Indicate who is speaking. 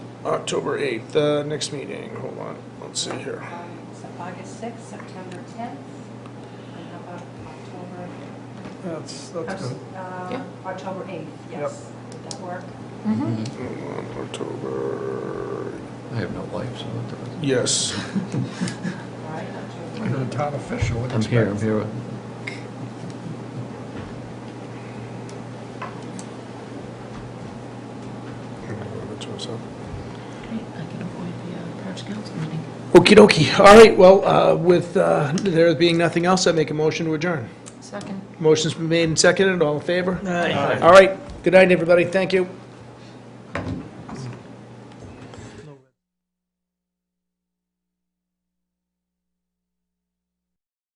Speaker 1: October 8th, the next meeting, hold on, let's see here.
Speaker 2: Um, So August sixth, September tenth, and how about October?
Speaker 3: That's, that's good.
Speaker 2: Uh, October eighth, yes. Would that work?
Speaker 1: Hold on, October,
Speaker 4: I have no life, so it doesn't.
Speaker 1: yes,
Speaker 2: All right, October
Speaker 3: You're a town official, what do you
Speaker 4: I'm here, I'm
Speaker 3: expect?
Speaker 4: here.
Speaker 5: Great, I can avoid the uh, Arch Council meeting.
Speaker 1: Okey dokey, all right, well, uh, with uh, there being nothing else, I make a motion to adjourn.
Speaker 5: Second.
Speaker 1: Motion's been made and seconded, all in favor? All right, good night, everybody, thank you.